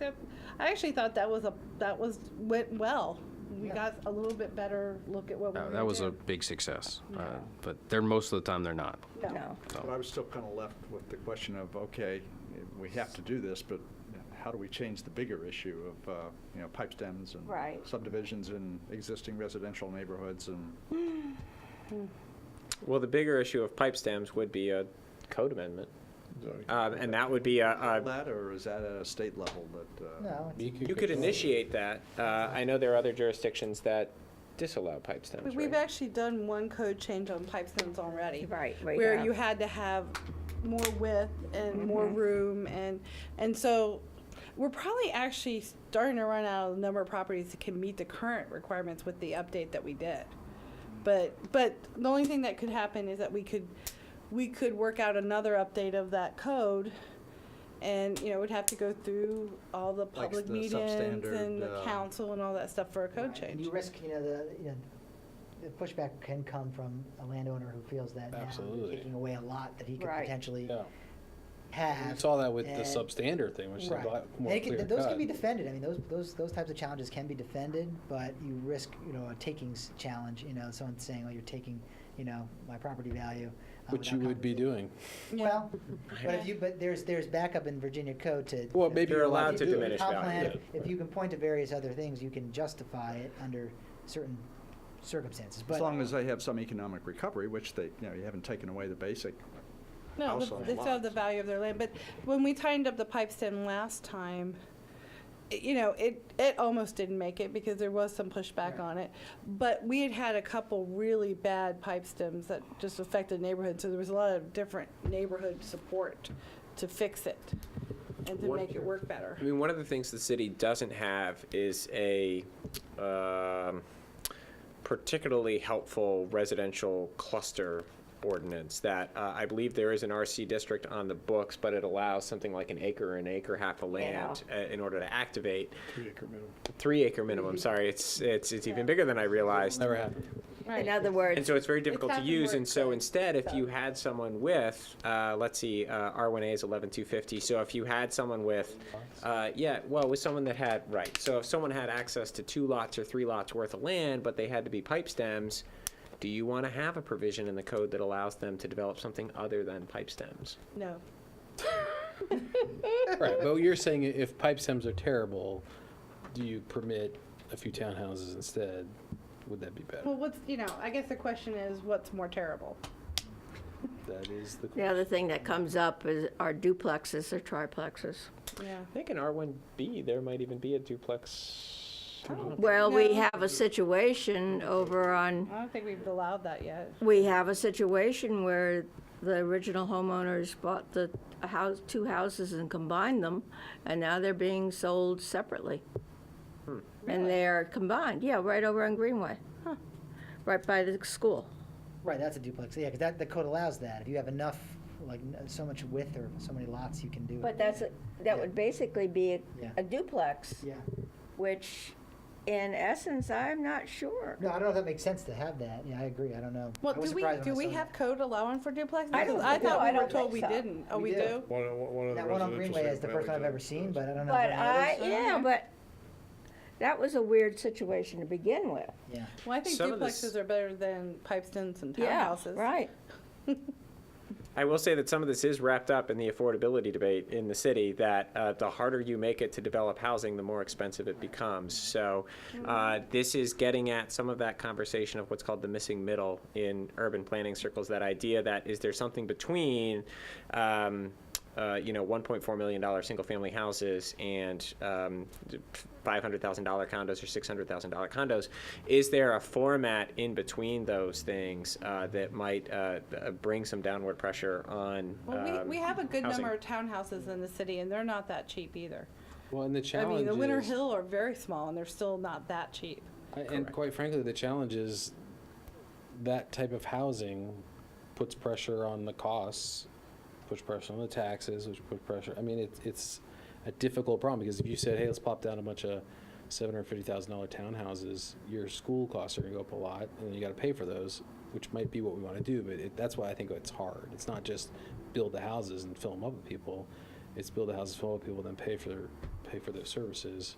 leadership. I actually thought that was a, that was, went well. We Yeah. got a little bit better look at what we were That, doing. that was a big success, uh, Yeah. but they're, most of the time, they're not. No. No. so. But I was still kind of left with the question of, okay, we have to do this, but how do we change the bigger issue of, uh, you know, pipe stems and Right. subdivisions in existing residential neighborhoods and Well, the bigger issue of pipe stems would be a code amendment. Um, and that would be a, a, that, or is that at a state level that? uh, No, it's- you could initiate that. Uh, I know there are other jurisdictions that disallow pipe We- stems, We've right? actually done one code change on pipe stems already. Right, Mm-hmm. we Where have. you had to have more width and more room and, and so we're probably actually starting to run out of the number of properties that can meet the current requirements with the update that we did. But, but the only thing that could happen is that we could, we could work out another update of that code. And, you know, we'd have to go through all the Like public the meetings substandard, and the uh, council and all that stuff for a code Right, and change. You risk, you know, the, you know, the pushback can come from a landowner who feels that now you're Absolutely. taking away a lot that he could Right. potentially Yeah. have. We saw that with the and- substandard thing, which is a Right. lot more They can- clear Those can cut. be defended, I mean, those, those, those types of challenges can be defended, but you risk, you know, a takings challenge, you know, someone saying, well, you're taking, you know, my property value. uh, Which you without would be compensation." doing. Well, but if you, but there's, there's backup in Virginia code to. Well, maybe if you're allowed if to you- diminish comp value, plan, yeah. If you can point to various other things, you can justify it under certain circumstances, but. As long as they have some economic recovery, which they, you know, you haven't taken away the basic. No, house the- on they still have the lots. value of their land, but when we tightened up the pipe stem last time, i- you know, it, it almost didn't make it because there was some pushback on it. But we had had a couple really bad pipe stems that just affected neighborhoods, so there was a lot of different neighborhood support to fix it and to What- make it work better. I mean, one of the things the city doesn't have is a, um, particularly helpful residential cluster ordinance that uh, I believe there is an RC district on the books, but it allows something like an acre, or an acre half of land uh, in order to activate. Three acre minimum, sorry, it's, it's, it's even bigger than I realized. Never happened. In other words, And so it's very difficult to hasn't use, and worked, so so- instead, if you had someone with, uh, let's see, uh, R1A is 11250, so if you had someone with, uh, yeah, well, with someone that had, right, so if someone had access to two lots or three lots worth of land, but they had to be pipe stems, do you want to have a provision in the code that allows them to develop something other than pipe stems? No. Right, but you're saying i- if pipe stems are terrible, do you permit a few townhouses instead? Would that be Well, better? what's, you know, I guess the question is, what's more terrible? That is the the other thing that comes up is are duplexes or triplexes. Yeah. I think in R1B, there might even be a duplex. Well, we No. have a situation over on, I don't think we've allowed that yet. we have a situation where the original homeowners bought the house, two houses and combined them, and now they're being sold separately. And they are combined, yeah, right over on Greenway, right by the school. Right, that's a duplex, yeah, because that, the code allows that, if you have enough, like, n- so much width or so many lots, you can do it. But that's, a- that would basically be a- Yeah. a duplex, Yeah, which in essence, I'm not sure. no, I don't know if that makes sense to have that, yeah, I agree, I don't know. Well, I was do we, surprised do when I we saw that. have code allowing for duplexes? I don't I think so. thought I we were don't told think we so. didn't. Oh, we We do. do? One, of- one of the That one on residential Greenway is the first one I've single-family ever seen, but I don't know. if But there are I, others. yeah, but that was a weird situation to begin with. Yeah. Well, I think Some of this- duplexes are better than pipe stems and Yeah, townhouses. Right. I will say that some of this is wrapped up in the affordability debate in the city, that uh, the harder you make it to develop housing, the more expensive it becomes. So uh, this is getting at some of that conversation of what's called the missing middle in urban planning circles, that idea that is there something between, um, uh, you know, $1.4 million single-family houses and um, $500,000 condos or $600,000 condos. Is there a format in between those things uh, that might uh, uh, bring some downward pressure on? Well, um, we, we have a good housing? number of townhouses in the city, and they're not that cheap either. Well, and the I challenge mean, the Winter is- Hill are very small, and they're still not that cheap. I- And quite frankly, the challenge is that type of housing puts pressure on the costs, puts pressure on the taxes, which put pressure, I mean, it's, it's a difficult problem, because if you said, hey, let's pop down a bunch of seven hundred fifty thousand dollar townhouses, your school costs are gonna go up a lot, and then you gotta pay for those, which might be what we wanna do, but it, that's why I think it's hard. It's not just build the houses and fill them up with people, it's build the houses full of people, then pay for their, pay for their services.